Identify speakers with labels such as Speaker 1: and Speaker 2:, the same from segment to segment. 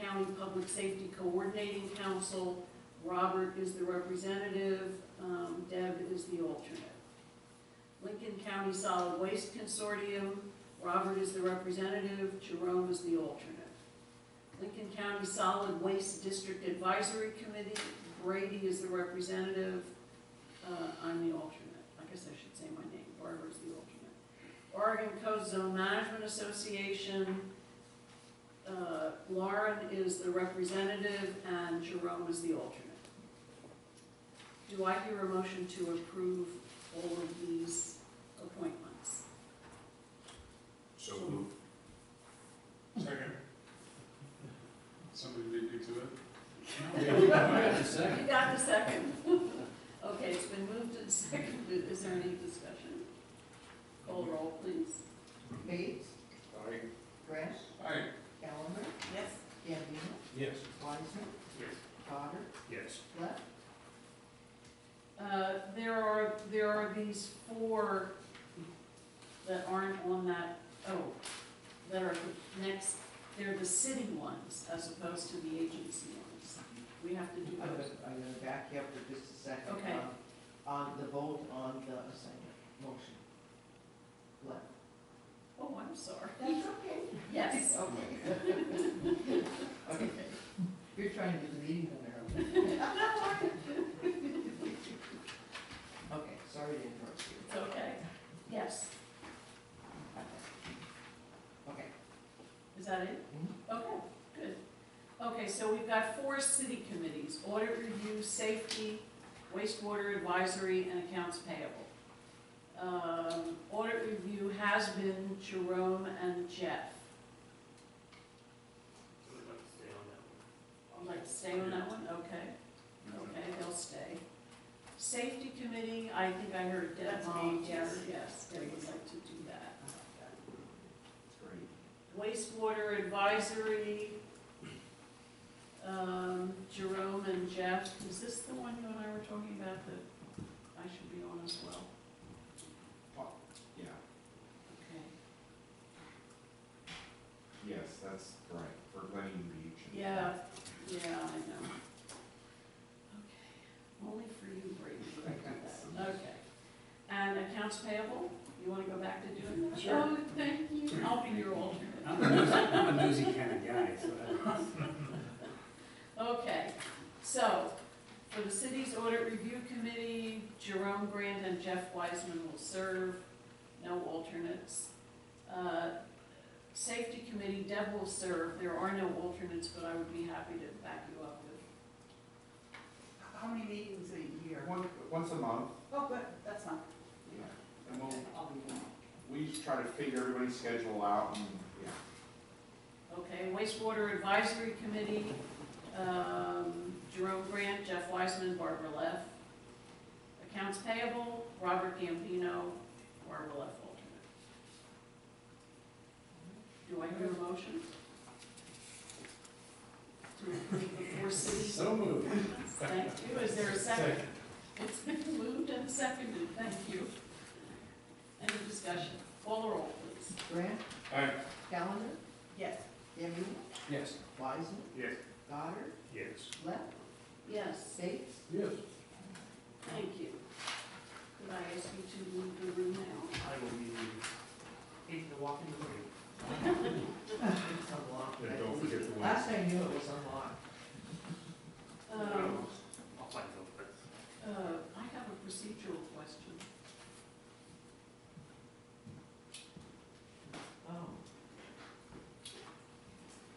Speaker 1: County Public Safety Coordinating Council. Robert is the representative, um, Deb is the alternate. Lincoln County Solid Waste Consortium, Robert is the representative, Jerome is the alternate. Lincoln County Solid Waste District Advisory Committee, Brady is the representative, uh, I'm the alternate. I guess I should say my name, Barbara's the alternate. Oregon Coast Zone Management Association, uh, Lauren is the representative and Jerome is the alternate. Do I hear a motion to approve all of these appointments?
Speaker 2: So moved.
Speaker 3: Second. Somebody lead you to it?
Speaker 1: You got the second? Okay, it's been moved and seconded. Is there any discussion? Call roll, please.
Speaker 4: Bates,
Speaker 2: Aye.
Speaker 4: Grant,
Speaker 3: Aye.
Speaker 4: Callender,
Speaker 1: Yes.
Speaker 4: Gambino,
Speaker 2: Yes.
Speaker 4: Wiseman,
Speaker 3: Yes.
Speaker 4: Goddard,
Speaker 2: Yes.
Speaker 4: Left,
Speaker 1: Uh, There are, there are these four that aren't on that, oh, that are the next, they're the city ones as opposed to the agency ones. We have to do
Speaker 4: I'm gonna,
Speaker 1: those.
Speaker 4: I'm gonna back you up for just a second.
Speaker 1: Okay.
Speaker 4: Um, On the vote on the assignment motion. Left.
Speaker 1: Oh, I'm sorry.
Speaker 4: That's okay.
Speaker 1: Yes.
Speaker 4: Okay. Okay. You're trying to do the meeting on there. Okay, sorry to interrupt you.
Speaker 1: It's okay. Yes.
Speaker 4: Okay,
Speaker 1: Is that it? Okay, good. Okay, so we've got four city committees, audit review, safety, wastewater advisory, and accounts payable. Um, Audit review has been Jerome and Jeff.
Speaker 5: I'd like to stay on that
Speaker 1: I'd
Speaker 5: one.
Speaker 1: like to stay on that one, okay, okay, they'll stay. Safety committee, I think I heard Deb
Speaker 4: That's me,
Speaker 1: Mom, yes,
Speaker 4: yes.
Speaker 1: yes, they would like to do that.
Speaker 2: Great.
Speaker 1: Wastewater advisory, um, Jerome and Jeff, is this the one you and I were talking about that I should be on as well?
Speaker 6: Yeah,
Speaker 1: Okay.
Speaker 6: yes, that's right, for Glennon Beach. and-
Speaker 1: Yeah, yeah, I know. Okay, only for you, Brady, I got that, okay. And accounts payable, you wanna go back to doing that?
Speaker 5: Sure.
Speaker 1: Oh, thank you, I'll be your alternate.
Speaker 5: I'm a newsy, I'm a newsy kind of guy, so that
Speaker 1: Okay, so, for the city's audit review committee, Jerome Grant and Jeff Wiseman will serve, no alternates. Uh, Safety committee, Deb will serve, there are no alternates, but I would be happy to back you up if,
Speaker 7: How many meetings a year?
Speaker 6: One, once a month,
Speaker 7: Oh, good, that's not,
Speaker 6: yeah, and we'll,
Speaker 7: I'll be one.
Speaker 6: we just try to figure everybody's schedule out and, yeah.
Speaker 1: okay? Wastewater advisory committee, um, Jerome Grant, Jeff Wiseman, Barbara Leff. Accounts payable, Robert Gambino, Barbara Leff alternate. Do I hear a motion? To approve the four cities?
Speaker 3: So moved.
Speaker 1: Thank you, is there a second? It's been moved and seconded, thank you. Any discussion? Call the roll, please.
Speaker 4: Grant,
Speaker 3: Aye.
Speaker 4: Callender,
Speaker 7: Yes,
Speaker 4: Gambino,
Speaker 3: Yes.
Speaker 4: Wiseman,
Speaker 3: Yes.
Speaker 4: Goddard,
Speaker 2: Yes.
Speaker 4: Left,
Speaker 1: Yes.
Speaker 4: Bates,
Speaker 3: Yes.
Speaker 1: Thank you. Could I ask you to leave the room now?
Speaker 5: I will be,
Speaker 7: need to walk into the room.
Speaker 4: It's unlocked.
Speaker 2: And don't forget the
Speaker 4: Last I knew it was unlocked.
Speaker 1: Um,
Speaker 5: I'll find out,
Speaker 1: uh, I have a procedural question.
Speaker 4: Oh.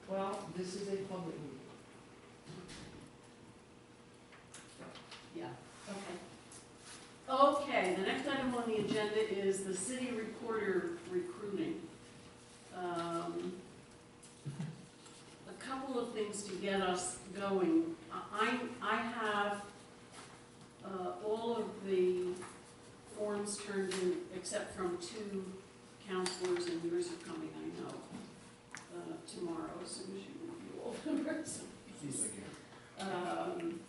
Speaker 4: Well, this is a public meeting.
Speaker 1: Yeah. Okay. Okay, the next item on the agenda is the city recorder recruiting. Um, A couple of things to get us going. I, I have uh, all of the forms turned in, except from two counselors, and yours are coming, I know, uh, tomorrow, as soon as you review all the rest of these. Um,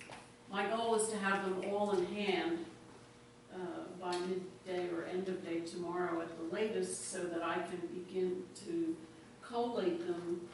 Speaker 1: My goal is to have them all in hand uh, by midday or end of day tomorrow at the latest, so that I can begin to collate them